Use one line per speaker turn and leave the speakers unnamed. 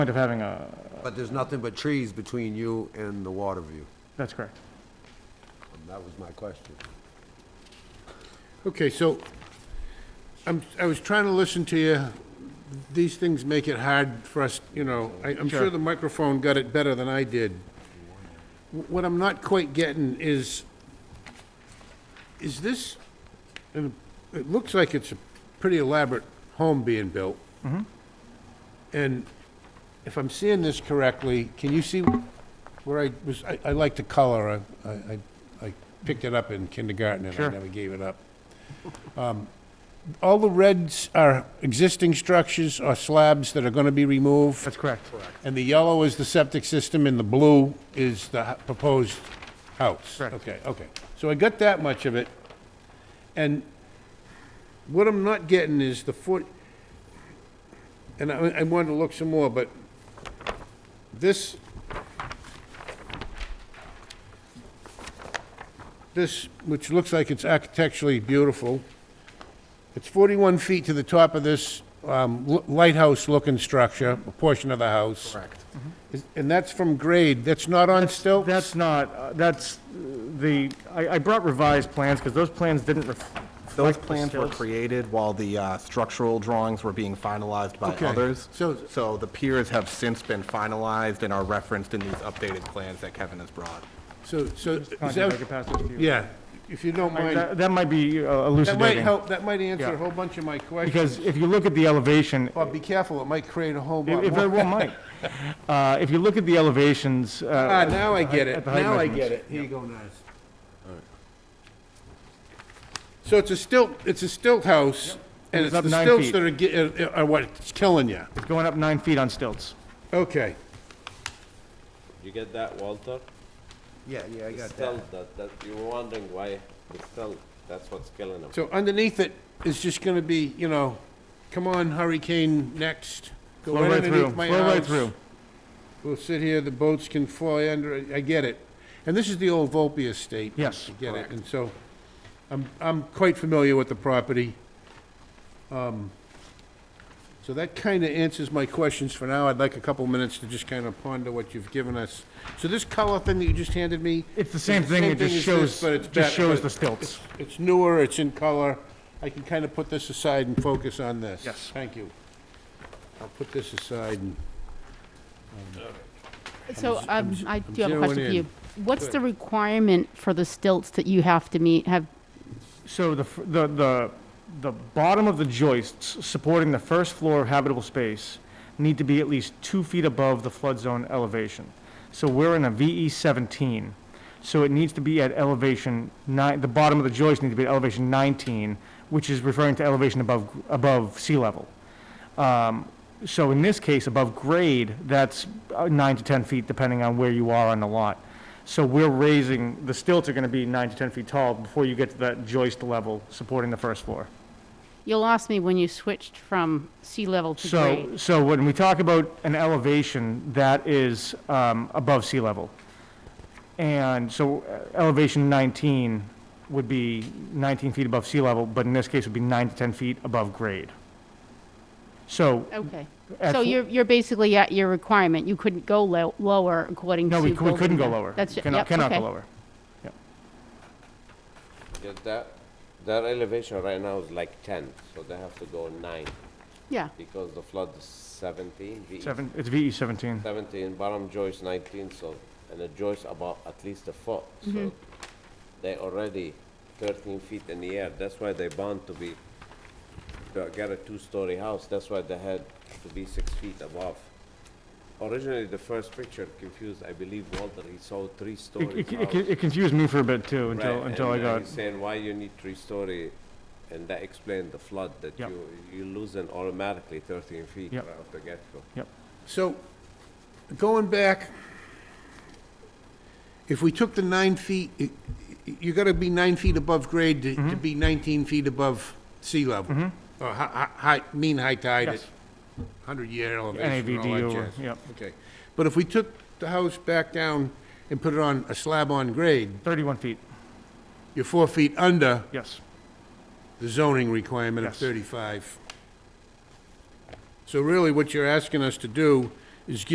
point of having a,
But there's nothing but trees between you and the water view.
that's correct.
And That was my question.
Okay, so, I'm, I was trying to listen to you. These things make it hard for us, you know, I, I'm sure the microphone got it better than I did. Wh- What I'm not quite getting is, is this, and it looks like it's a pretty elaborate home being built. And if I'm seeing this correctly, can you see where I was, I, I like the color, I, I, I picked it up in kindergarten and I
Sure.
never gave it up. Um, All the reds are existing structures or slabs that are gonna be removed?
That's correct.
And the yellow is the septic system, and the blue is the hu- proposed house?
Correct.
Okay, okay. So I got that much of it. And what I'm not getting is the foot, and I, I wanted to look some more, but this, this, which looks like it's architecturally beautiful, it's 41 feet to the top of this um, l- lighthouse-looking structure, a portion of the house. Correct. And that's from grade, that's not on stilts?
That's not, uh, that's uh, the, I, I brought revised plans because those plans didn't ref-
Those
reflect the
plans were
stilts.
created while the uh, structural drawings were being finalized by
Okay,
others.
so-
So the piers have since been finalized and are referenced in these updated plans that Kevin has brought.
So, so, is
Contact, I could
that,
pass this to you.
yeah, if you don't
Like,
mind,
That that might be uh,
that might
elucidating,
help, that might answer
Yeah.
a whole bunch of my questions.
because if you look at the elevation,
Bob, be careful, it might create a whole
it
lot
it very
more.
well might. Uh, If you look at the elevations,
Ah,
uh,
now I
at
get it,
the height
now I
measurements.
get it. Here you go, Naz. So it's a stilt, it's a stilt house, and
it's
it's
up
the
nine
stilts
feet.
that are, ge- are- are what's killing you.
it's going up nine feet on stilts.
Okay,
You get that, Walter?
Yeah, yeah, I
The stealth, that, that, you were wondering why the stealth, that's what's killing them.
so underneath it is just gonna be, you know, come on hurricane next. Go
Flow right through,
underneath my
flow right
house.
through.
We'll sit here, the boats can fly under, it. I get it. And this is the old Volpe estate.
Yes,
I get it, and so, I'm, I'm quite familiar with the property. Um, So that kinda answers my questions for now. I'd like a couple minutes to just kinda ponder what you've given us. So this color thing that you just handed me?
It's the same thing, it just
as
shows,
this, but it's
just
bet-
shows
but
the stilts.
It's newer, it's in color. I can kinda put this aside and focus on this. Yes. Thank you. I'll put this aside and.
So um, I do have a
zeroing
question for
in.
you. What's the requirement for the stilts that you have to meet, have,
So the, f- the, the, the bottom of the joists supporting the first floor of habitable space need to be at least two feet above the flood zone elevation. So we're in a VE seventeen, so it needs to be at elevation nine, the bottom of the joist need to be at elevation nineteen, which is referring to elevation above, gr- above sea level. Um, so in this case, above grade, that's uh, nine to ten feet, depending on where you are on the lot. So we're raising, the stilts are going to be nine to 10 feet tall before you get to that joist level supporting the first floor.
you lost me when you switched from sea level to
So,
grade.
so when we talk about an elevation, that is um, above sea level. And so uh, elevation 19 would be 19 feet above sea level, but in this case would be nine to 10 feet above grade. So.
Okay.
at
So
fl-
you're, you're basically at your requirement. You couldn't go lo- lower according to.
No, we cou- we couldn't
building
go
code.
lower.
That's,
Cannot-
yep,
Cannot go
okay.
lower.
Get that, their elevation right now is like ten, so they have to go nine,
Yeah,
because the flood is seventeen, E VE
Seven, it's E VE 17.
seventeen, bottom joist nineteen, so, and the joist about at least a foot,
Mm-hmm.
so they already thirteen feet in the air, that's why they bound to be, to get a two-story house, that's why they had to be six feet above. Originally, the first picture confused, I believe Walter, he saw three
It-
stories
It
house.
it- it confused me for a bit too, until,
Right,
until I
and, uh,
got.
he's Saying why you need three-story, and that explained the flood, that
Yep.
you, you losing automatically thirteen feet
Yep.
right off the get-go.
So, going back, if we took the nine feet, y- y- you gotta be nine feet above grade to,
Mm-hmm.
to be nineteen feet above sea level. Or hi, hi, high- mean high tide at
Yes.
hundred-year elevation and all
NAVDU,
that
or-
jazz.
yep.
Okay, but if we took the house back down and put it on a slab on grade,
31 feet,
you're four feet under
yes.
the zoning requirement of
Yes.
35. So really, what you're asking us to do is